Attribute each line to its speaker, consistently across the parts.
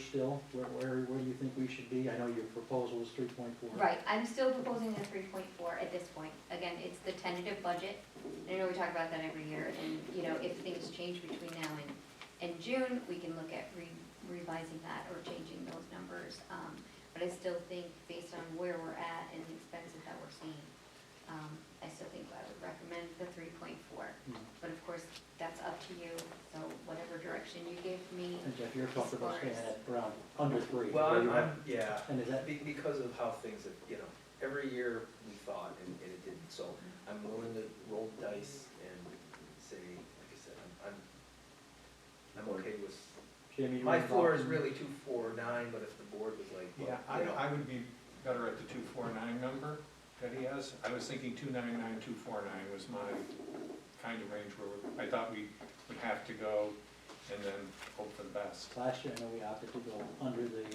Speaker 1: still? Where, where, where do you think we should be? I know your proposal is three point four.
Speaker 2: Right, I'm still proposing the three point four at this point. Again, it's the tentative budget. I know we talk about that every year, and, you know, if things change between now and, and June, we can look at re- revising that or changing those numbers. Um, But I still think, based on where we're at and the expenses that we're seeing, um, I still think I would recommend the three point four.
Speaker 1: Mm.
Speaker 2: But of course, that's up to you, so whatever direction you give me,
Speaker 1: And Jeff, you're comfortable
Speaker 2: As far
Speaker 1: staying
Speaker 2: as-
Speaker 1: at around under three?
Speaker 3: Well,
Speaker 1: where
Speaker 3: I'm,
Speaker 1: you
Speaker 3: I'm,
Speaker 1: are.
Speaker 3: yeah,
Speaker 1: And is that,
Speaker 3: be- because of how things have, you know, every year we thought and, and it didn't, so I'm willing to roll the dice and say, like I said, I'm, I'm, I'm okay with,
Speaker 1: Jamie? you
Speaker 3: my
Speaker 1: wanna
Speaker 3: floor
Speaker 1: talk?
Speaker 3: is really two, four, nine, but if the board was like,
Speaker 4: Yeah,
Speaker 3: well,
Speaker 4: I,
Speaker 3: you know,
Speaker 4: I would be better at the two four nine number that he has. I was thinking two nine nine, two four nine was my kind of range where I thought we would have to go and then hope for the best.
Speaker 1: Last year, I know we opted to go under the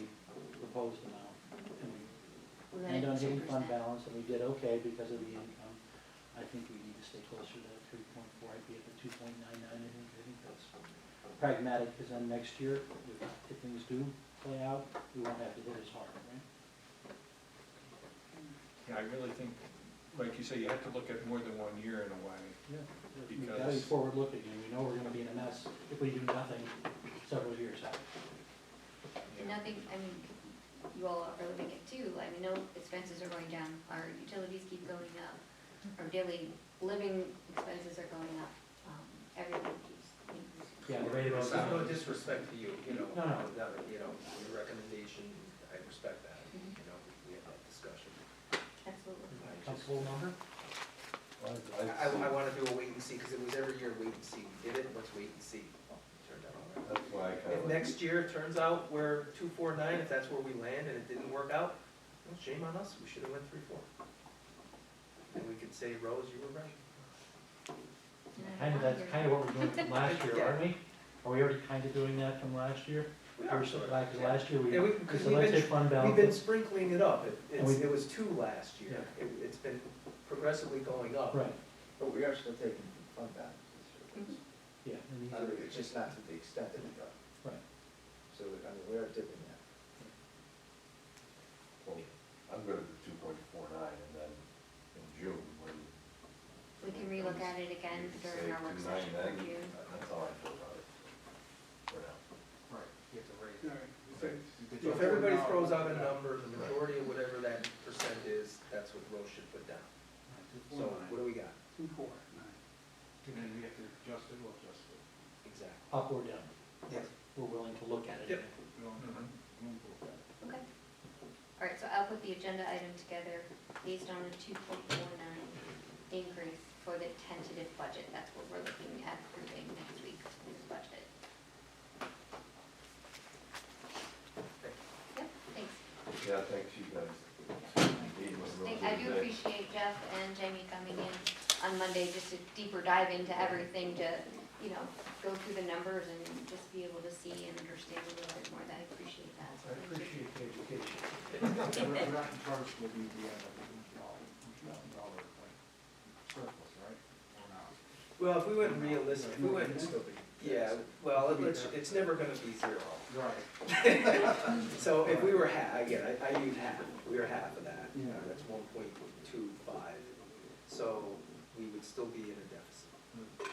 Speaker 1: proposed amount, and we
Speaker 2: we're
Speaker 1: ended
Speaker 2: at
Speaker 1: on
Speaker 2: two
Speaker 1: hitting fund
Speaker 2: percent.
Speaker 1: balance, and we did okay because of the income. I think we need to stay closer to that three point four, I'd be at the two point nine nine, I think, I think that's pragmatic, because then next year, if, if things do play out, we won't have to hit as hard, right?
Speaker 4: Yeah, I really think, like you say, you have to look at more than one year in a way.
Speaker 1: We've got to be
Speaker 4: Because-
Speaker 1: forward-looking, and we know we're gonna be in a mess if we do nothing several years out.
Speaker 2: And Nothing, I mean, you all are living it too, I mean, no expenses are going down, our utilities keep going up, our daily living expenses are going up, um, everything keeps increasing.
Speaker 1: Yeah, the rate of
Speaker 3: there's no
Speaker 1: sound.
Speaker 3: disrespect to you, you know,
Speaker 1: No, no.
Speaker 3: that, you know, your recommendation, I respect that,
Speaker 2: Mhm.
Speaker 3: you know, we had that discussion.
Speaker 2: Absolutely.
Speaker 3: I just-
Speaker 1: Comfortable number?
Speaker 3: I, I wanna do a wait and see, cause it was every year wait and see, we did it, let's wait and see, Well, it turned out all right.
Speaker 5: That's why I
Speaker 1: Uh,
Speaker 3: If
Speaker 5: kind of,
Speaker 3: next year it turns out we're two, four, nine, if that's where we land and it didn't work out, well, shame on us, we should have went three, four. And we could say, Rose, you were right.
Speaker 1: Kind of, that's kind of what we're doing from last year, aren't we? Are we already kind of doing that from last year?
Speaker 3: We
Speaker 1: Or
Speaker 3: are
Speaker 1: so-
Speaker 3: sort of.
Speaker 1: like, 'cause last year, we,
Speaker 3: Yeah, we-
Speaker 1: we
Speaker 3: 'cause we've been-
Speaker 1: selected fund
Speaker 3: We've been
Speaker 1: balance.
Speaker 3: sprinkling it up, It-
Speaker 1: And
Speaker 3: it's,
Speaker 1: we-
Speaker 3: it was two last year, it, it's been progressively going up.
Speaker 1: Right,
Speaker 5: but we are still taking fund balance. this year.
Speaker 1: yeah. and these
Speaker 5: I mean,
Speaker 1: are-
Speaker 5: It's just not to the extent that we got,
Speaker 1: Right.
Speaker 5: so, I mean, we are dipping that.
Speaker 6: Well, I'm good at two point four nine, and then in June, when.
Speaker 2: We can relook at it again
Speaker 6: you say
Speaker 2: during our work
Speaker 6: 2.9,
Speaker 2: session
Speaker 6: then,
Speaker 2: for June.
Speaker 6: That's all I feel about it, for now.
Speaker 3: Right, you have to rate it.
Speaker 7: All right.
Speaker 3: So if everybody throws out a number, the majority of whatever that percent is, that's what Rose should put down. So what do we got?
Speaker 7: Two, four, nine. And then we have to adjust it, we'll adjust it.
Speaker 3: Exactly.
Speaker 1: Up or down?
Speaker 3: Uh, Yes.
Speaker 1: We're willing to look at it.
Speaker 3: Yep.
Speaker 7: We don't-
Speaker 4: Mhm.
Speaker 5: Mm-hmm.
Speaker 3: Mm-hmm.
Speaker 7: we don't go back.
Speaker 2: Okay. All right, so I'll put the agenda item together based on a two point four nine increase for the tentative budget. That's what we're looking at approving next week, this budget. Yep, thanks.
Speaker 6: Yeah, thanks, you guys. Gave us a little
Speaker 2: Thank- I
Speaker 6: bit
Speaker 2: do
Speaker 6: of that.
Speaker 2: appreciate Jeff and Jamie coming in on Monday, just to deeper dive into everything to, you know, go through the numbers and just be able to see and understand a little bit more. That I appreciate that. So
Speaker 1: I
Speaker 2: thank you.
Speaker 1: appreciate the education.
Speaker 7: We're we're not in charge with the, the, uh, the dollar, the dollar, like, surplus, right? Or not?
Speaker 3: Well, if we went realistic, if we
Speaker 7: It'd
Speaker 3: went,
Speaker 7: still
Speaker 5: be-
Speaker 3: yeah, well, it's, it's never gonna be zero.
Speaker 7: Right.
Speaker 3: So if we were half, again, I, I use half, we were half of that.
Speaker 7: Yeah.
Speaker 3: That's one point two five, so we would still be in a deficit.
Speaker 7: Hmm.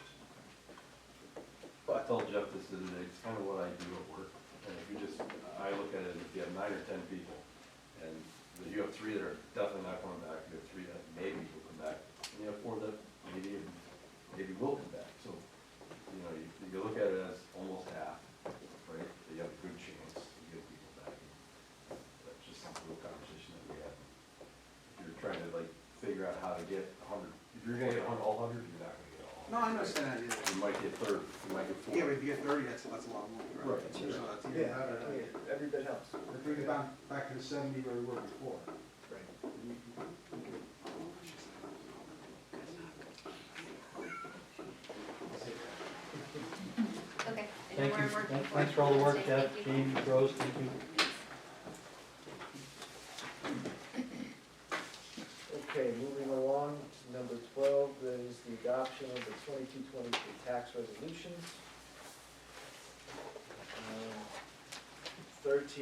Speaker 6: I
Speaker 3: But,
Speaker 6: told Jeff this the other day, it's kind of what I do at work, and if you just, I look at it, if you have nine or ten people, and you have three that are definitely not coming back, you have three that maybe will come back, and you have four that maybe, maybe will come back, so, you know, you, you look at it as almost half, right, that you have a good chance to get people back. That's just a little conversation that we had. If you're trying to like figure out how to get a hundred, if you're gonna get a hundred, all hundred, you're not gonna get all hundred.
Speaker 7: No, I understand that,
Speaker 6: You might get thirty, you might get
Speaker 7: yeah.
Speaker 6: forty.
Speaker 7: Yeah, but if you get thirty, that's, that's a lot more, right?
Speaker 6: Right.
Speaker 7: So that's even
Speaker 5: Yeah,
Speaker 7: better.
Speaker 5: I mean, every bit helps.
Speaker 7: If we get back, back to the seventy where we were before.
Speaker 3: right,
Speaker 2: Okay. I know
Speaker 1: Thank
Speaker 2: we're
Speaker 1: you,
Speaker 2: working
Speaker 1: Thank-
Speaker 2: for
Speaker 1: thanks for all the work,
Speaker 2: Tuesday.
Speaker 1: Jeff,
Speaker 2: Thank you.
Speaker 1: Jamie, Rose, thank you.
Speaker 5: Okay, moving along, number twelve is the adoption of the twenty-two, twenty-three tax resolutions. Um, Uh, Thirteen